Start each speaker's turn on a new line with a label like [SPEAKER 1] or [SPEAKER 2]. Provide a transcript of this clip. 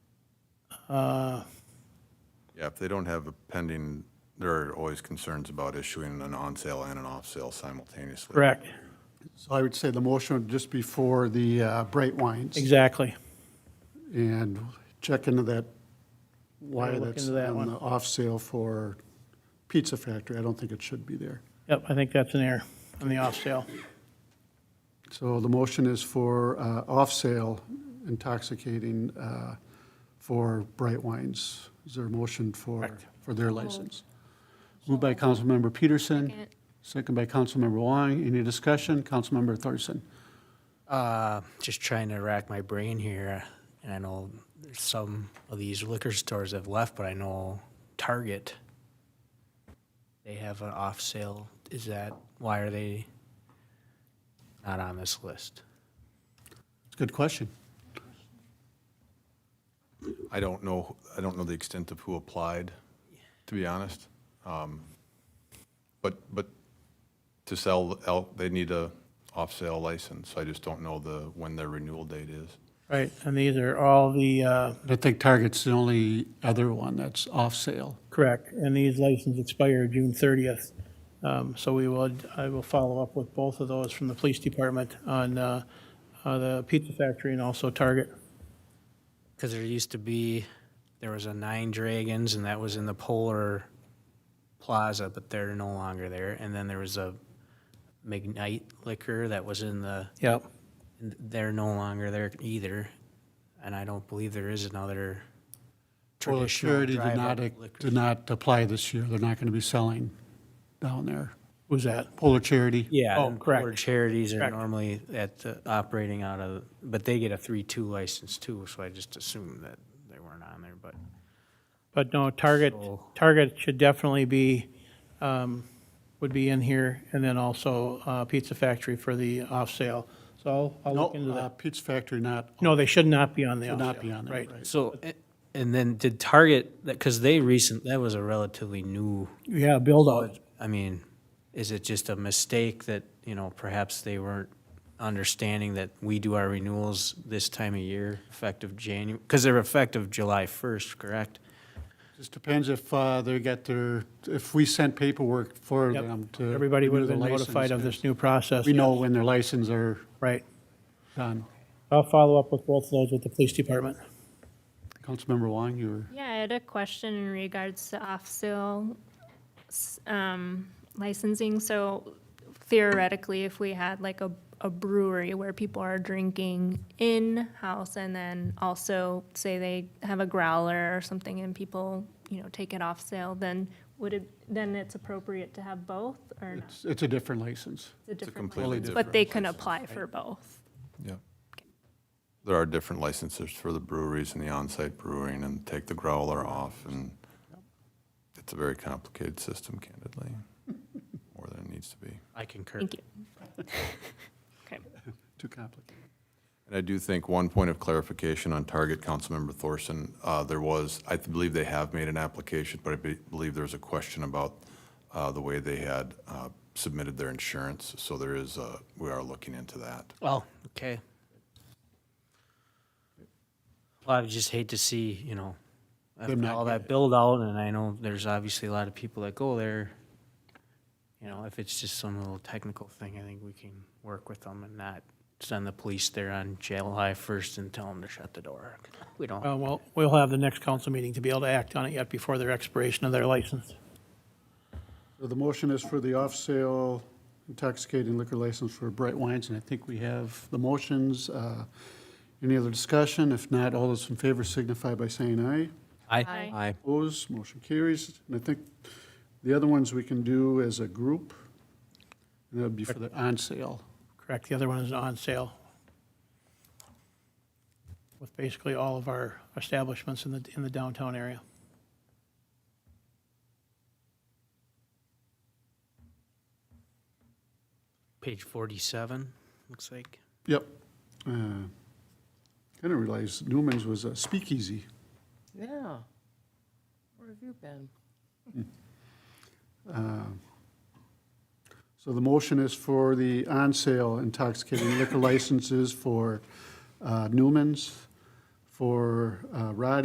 [SPEAKER 1] Yeah, if they don't have a pending, there are always concerns about issuing an on-sale and an off-sale simultaneously.
[SPEAKER 2] Correct,
[SPEAKER 3] So I would say the motion would just be for the uh, bright wines.
[SPEAKER 2] exactly.
[SPEAKER 3] And check into that, why
[SPEAKER 2] Gotta look
[SPEAKER 3] that's
[SPEAKER 2] into that
[SPEAKER 3] on
[SPEAKER 2] one.
[SPEAKER 3] the off sale for Pizza Factory. I don't think it should be there.
[SPEAKER 2] Yep, I think that's an error on the off sale.
[SPEAKER 3] So the motion is for uh, off sale intoxicating uh, for bright wines. Is there a motion for, for their license? Moved by Councilmember Peterson,
[SPEAKER 4] Second.
[SPEAKER 3] second by Councilmember Wong. Any discussion? Councilmember Thorson.
[SPEAKER 5] Uh, just trying to rack my brain here, and I know there's some of these liquor stores have left, but I know Target. They have an off sale. Is that why are they not on this list?
[SPEAKER 3] It's a good question.
[SPEAKER 1] I don't know, I don't know the extent of who applied, to be honest. Um, But, but to sell, el- they need a off-sale license. I just don't know the, when their renewal date is.
[SPEAKER 2] Right, and these are all the, uh,
[SPEAKER 3] I think Target's the only other one that's off sale.
[SPEAKER 2] correct, and these licenses expire June 30th. Um, So we will, I will follow up with both of those from the police department on uh, uh, the Pizza Factory and also Target.
[SPEAKER 5] Because there used to be, there was a Nine Dragons, and that was in the Polar Plaza, but they're no longer there. And then there was a McKnight Liquor that was in the
[SPEAKER 2] Yep.
[SPEAKER 5] And They're no longer there either, and I don't believe there is another
[SPEAKER 3] Well,
[SPEAKER 5] traditional
[SPEAKER 3] Surety did not,
[SPEAKER 5] drive-up liquor.
[SPEAKER 3] did not apply this year. They're not going to be selling down there.
[SPEAKER 2] Who's that?
[SPEAKER 3] Polar Charity?
[SPEAKER 5] Yeah,
[SPEAKER 2] Oh,
[SPEAKER 5] and
[SPEAKER 2] correct.
[SPEAKER 5] Polar Charities are
[SPEAKER 2] Correct.
[SPEAKER 5] normally at, the- operating out of, but they get a three-two license too, so I just assumed that they weren't on there, but
[SPEAKER 2] But no, Target,
[SPEAKER 5] So-
[SPEAKER 2] Target should definitely be, um, would be in here, and then also uh, Pizza Factory for the off-sale. So I'll- I'll
[SPEAKER 3] No,
[SPEAKER 2] look into
[SPEAKER 3] uh,
[SPEAKER 2] that.
[SPEAKER 3] Peach Factory not,
[SPEAKER 2] No, they should not be on the
[SPEAKER 3] should
[SPEAKER 2] off-sale.
[SPEAKER 3] not be on there, right?
[SPEAKER 5] So, a- and then did Target, because they recent, that was a relatively new,
[SPEAKER 2] Yeah, build-out.
[SPEAKER 5] I mean, is it just a mistake that, you know, perhaps they weren't understanding that we do our renewals this time of year, effective January, because they're effective July first, correct?
[SPEAKER 3] Just depends if uh, they got their, if we sent paperwork for
[SPEAKER 2] Yep.
[SPEAKER 3] them to.
[SPEAKER 2] Everybody would have
[SPEAKER 3] renew
[SPEAKER 2] been
[SPEAKER 3] the
[SPEAKER 2] notified of
[SPEAKER 3] license.
[SPEAKER 2] this new process.
[SPEAKER 3] We know when their licenses are
[SPEAKER 2] Right.
[SPEAKER 3] done.
[SPEAKER 2] I'll follow up with both of those with the police department.
[SPEAKER 3] Councilmember Wong, you were,
[SPEAKER 4] Yeah, I had a question in regards to off-sale s- um, licensing. So theoretically, if we had like a a brewery where people are drinking in-house and then also say they have a growler or something and people, you know, take it off sale, then would it, then it's appropriate to have both or not?
[SPEAKER 3] it's, it's a different license.
[SPEAKER 1] It's a
[SPEAKER 4] different
[SPEAKER 1] completely
[SPEAKER 4] license,
[SPEAKER 1] different.
[SPEAKER 4] But they can apply for both.
[SPEAKER 1] Yeah. There are different licenses for the breweries and the on-site brewing and take the growler off and it's a very complicated system candidly, more than it needs to be.
[SPEAKER 5] I concur.
[SPEAKER 4] Thank you. Okay.
[SPEAKER 3] Too complicated.
[SPEAKER 1] And I do think one point of clarification on Target, Councilmember Thorson, uh, there was, I believe they have made an application, but I be- believe there's a question about uh, the way they had uh, submitted their insurance. So there is, uh, we are looking into that.
[SPEAKER 5] Well, okay. Well, I would just hate to see, you know, after
[SPEAKER 3] not
[SPEAKER 5] all
[SPEAKER 3] get
[SPEAKER 5] that build out, and I know there's obviously a lot of people that go there. You know, if it's just some little technical thing, I think we can work with them and not send the police there on July first and tell them to shut the door. We don't.
[SPEAKER 2] Uh, Well, we'll have the next council meeting to be able to act on it yet before their expiration of their license.
[SPEAKER 3] So the motion is for the off-sale intoxicating liquor license for Bright Wines, and I think we have the motions. Uh, Any other discussion? If not, all those in favor signify by saying aye.
[SPEAKER 5] Aye.
[SPEAKER 4] Aye.
[SPEAKER 5] Aye.
[SPEAKER 3] Opposed, motion carries. And I think the other ones we can do as a group, and that would be for the on-sale.
[SPEAKER 2] Correct, the other one is on sale. With basically all of our establishments in the, in the downtown area.
[SPEAKER 5] Page forty-seven, looks like.
[SPEAKER 3] Yep. Kind of realized Uh, Newman's was a speakeasy.
[SPEAKER 6] Yeah. Where have you been?
[SPEAKER 3] So the motion is for the on-sale intoxicating liquor licenses for uh, Newman's, for uh, Roddy's,